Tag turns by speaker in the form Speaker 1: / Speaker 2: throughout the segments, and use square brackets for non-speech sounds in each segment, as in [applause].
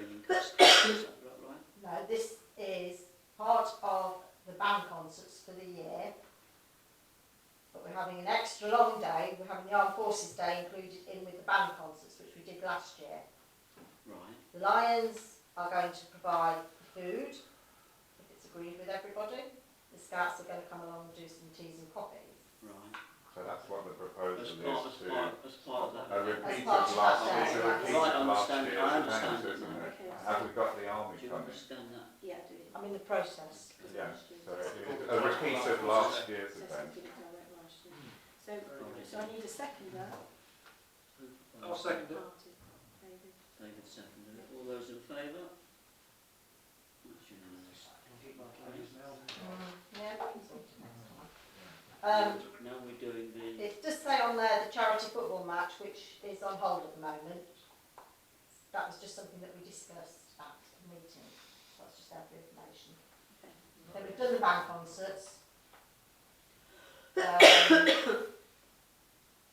Speaker 1: Is that about right?
Speaker 2: No, this is part of the band concerts for the year. But we're having an extra long day, we're having the Armed Forces Day included in with the band concerts, which we did last year.
Speaker 1: Right.
Speaker 2: The Lions are going to provide the food, if it's agreed with everybody. The Scouts are going to come along and do some teas and coffees.
Speaker 1: Right.
Speaker 3: So that's what the
Speaker 1: As
Speaker 3: proposal
Speaker 1: part, as
Speaker 3: is to,
Speaker 1: part, as part of
Speaker 3: a
Speaker 1: that.
Speaker 3: repeat of
Speaker 2: part of that,
Speaker 3: last, it's a
Speaker 2: yeah.
Speaker 3: repeat
Speaker 1: Right, I
Speaker 3: of last
Speaker 1: understand,
Speaker 3: year's
Speaker 1: I
Speaker 3: event,
Speaker 1: understand.
Speaker 3: isn't it?
Speaker 4: Okay.
Speaker 3: Have we got the
Speaker 1: Do
Speaker 3: army
Speaker 1: you
Speaker 3: coming?
Speaker 1: understand that?
Speaker 4: Yeah, I do.
Speaker 2: I'm in the process.
Speaker 3: Yeah, so it is a repeat of last year's
Speaker 4: So
Speaker 3: event.
Speaker 4: something about that last year. So, so I need a seconder.
Speaker 5: I'll second it.
Speaker 4: Martin, David.
Speaker 1: David seconded it. All those in favour? That's unanimous.
Speaker 2: Um,
Speaker 1: Now we're doing the,
Speaker 2: It does say on there the charity football match, which is on hold at the moment. That was just something that we discussed at the meeting. That's just out of information. Then we've done the band concerts.
Speaker 4: [coughs]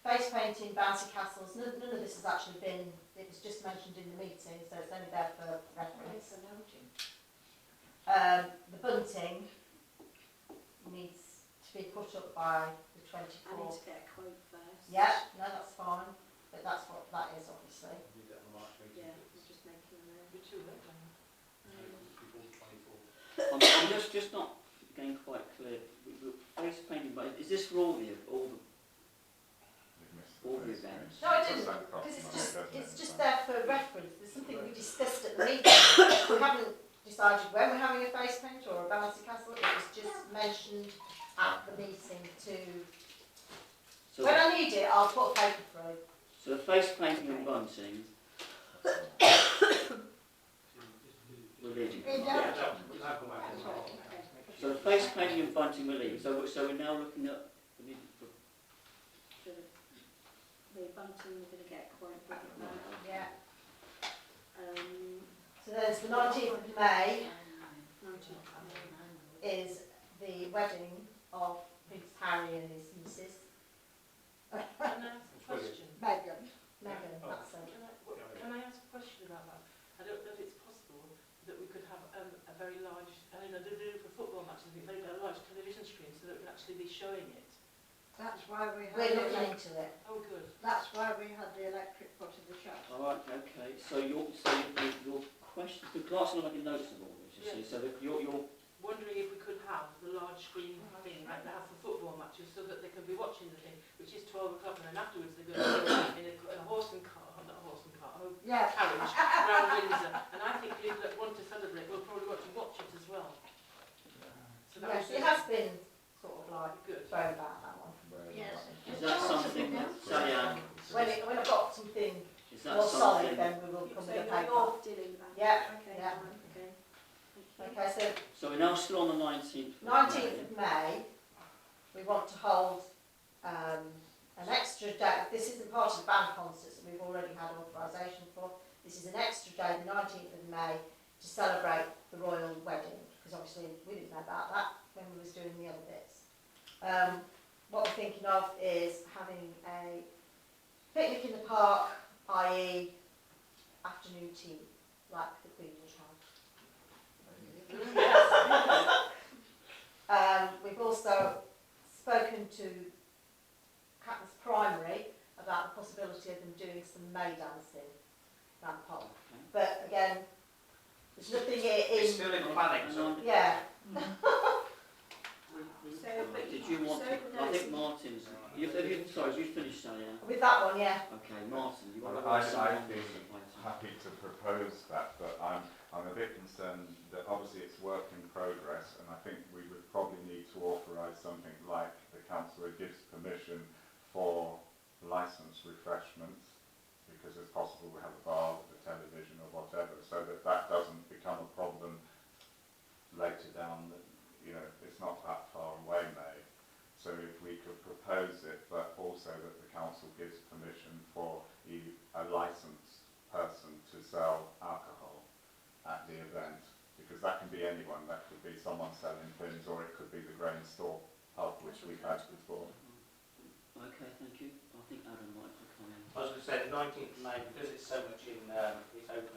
Speaker 2: Um, face painting, bouncy castles, none, none of this has actually been, it was just mentioned in the meeting, so it's only there for reference.
Speaker 4: Yes, I know, Jim.
Speaker 2: Um, the bunting needs to be put up by the
Speaker 4: I need
Speaker 2: 24th
Speaker 4: to get a quote first.
Speaker 2: Yeah, no, that's fine, but that's what that is, obviously.
Speaker 4: Yeah, I'm just making a note.
Speaker 1: I'm,
Speaker 4: Um,
Speaker 1: I'm just, just not getting quite clear. We- we're Face painting, but is this for all the, all the,
Speaker 3: You've missed
Speaker 1: All the
Speaker 3: first
Speaker 1: events.
Speaker 2: No, I
Speaker 3: bit.
Speaker 2: didn't,
Speaker 3: Does that cost
Speaker 2: Because it's
Speaker 3: money,
Speaker 2: just,
Speaker 3: doesn't
Speaker 2: it's
Speaker 3: it,
Speaker 2: just
Speaker 3: as
Speaker 2: there
Speaker 3: well?
Speaker 2: for reference, there's something we discussed at the meeting. We haven't decided when we're having a face paint or a bouncy castle, it was just mentioned at the meeting to,
Speaker 1: so,
Speaker 2: when I need it, I'll put a paper through.
Speaker 1: so the face painting and bunting we're leaving.
Speaker 2: Yeah.
Speaker 4: That's right, okay.
Speaker 1: So the face painting and bunting we're leaving. So, so we're now looking at, we need to
Speaker 4: So The the bunting, we're gonna get a quote for it now.
Speaker 2: Yeah,
Speaker 4: Um,
Speaker 2: so there's the nineteenth of May
Speaker 4: nineteenth of May.
Speaker 2: is the wedding of Prince Harry and his nieces,
Speaker 6: Can I ask a question?
Speaker 2: Meghan, Meghan, that's it.
Speaker 6: Can I, can I ask a question about that? I don't know if it's possible that we could have um, a very large, I don't know, they're doing it for football matches, a very large television screen so that we can actually be showing it.
Speaker 7: That's why we
Speaker 2: We're
Speaker 7: had,
Speaker 2: looking
Speaker 7: the-
Speaker 2: into it.
Speaker 6: Oh, good.
Speaker 7: that's why we had the electric pot in the shop.
Speaker 1: All right, okay, so your, so your, your question, the class are making notes of all this, you see, so that your, your,
Speaker 6: Wondering if we could have the large screen thing like they have for football matches so that they can be watching the thing, which is 12 o'clock and then afterwards they're going to go in a, a horse and car, not a horse and car, a
Speaker 2: Yeah,
Speaker 6: carriage round Windsor. And I think people that want to celebrate will probably want to watch it as well. So that
Speaker 2: yes,
Speaker 6: was
Speaker 2: it has been sort of like
Speaker 6: good.
Speaker 2: thrown back that one.
Speaker 3: Where-
Speaker 7: Yes.
Speaker 1: is that something, Sally Ann,
Speaker 2: When it, when I've got something
Speaker 1: is that
Speaker 2: more solid,
Speaker 1: something?
Speaker 2: then we will come
Speaker 4: So
Speaker 2: with a
Speaker 4: you're
Speaker 2: paper.
Speaker 4: all dealing with that?
Speaker 2: Yeah,
Speaker 4: Okay,
Speaker 2: yeah.
Speaker 4: fine, okay. Thank you.
Speaker 2: Okay, so
Speaker 1: So we're now still on the nineteenth.
Speaker 2: nineteenth of May, we want to hold, um, an extra day, this isn't part of the band concerts that we've already had authorisation for, this is an extra day, the nineteenth of May, to celebrate the royal wedding, because obviously we didn't know about that when we was doing the other bits. Um, what we're thinking of is having a picnic in the park, i.e. afternoon tea, like the Queen would have. Um, we've also spoken to Catton's Primary about the possibility of them doing some May dancing around the park. But again, there's nothing i- in,
Speaker 5: It's still in planning, so.
Speaker 2: yeah,
Speaker 4: So, but
Speaker 1: Did you want,
Speaker 4: so
Speaker 1: to- I
Speaker 4: there's
Speaker 1: think Martin's, you, have you, sorry, have you finished, Sally Ann?
Speaker 2: with that one, yeah.
Speaker 1: Okay, Martin, you want to
Speaker 3: Well, I-
Speaker 1: add something?
Speaker 3: I think- happy to propose that, but I'm, I'm a bit concerned that obviously it's work in progress, and I think we would probably need to authorise something like the councillor gives permission for licensed refreshments, because it's possible we have a bar with a television or whatever, so that that doesn't become a problem later down, the- you know, it's not that far away, May. So if we could propose it, but also that the council gives permission for e- a licensed person to sell alcohol at the event, because that can be anyone, that could be someone selling things, or it could be the grain store pub, which we've had before.
Speaker 1: Okay, thank you, I think Adam might be coming.
Speaker 5: I was going to say, the nineteenth of May, because it's so much in, um, it's open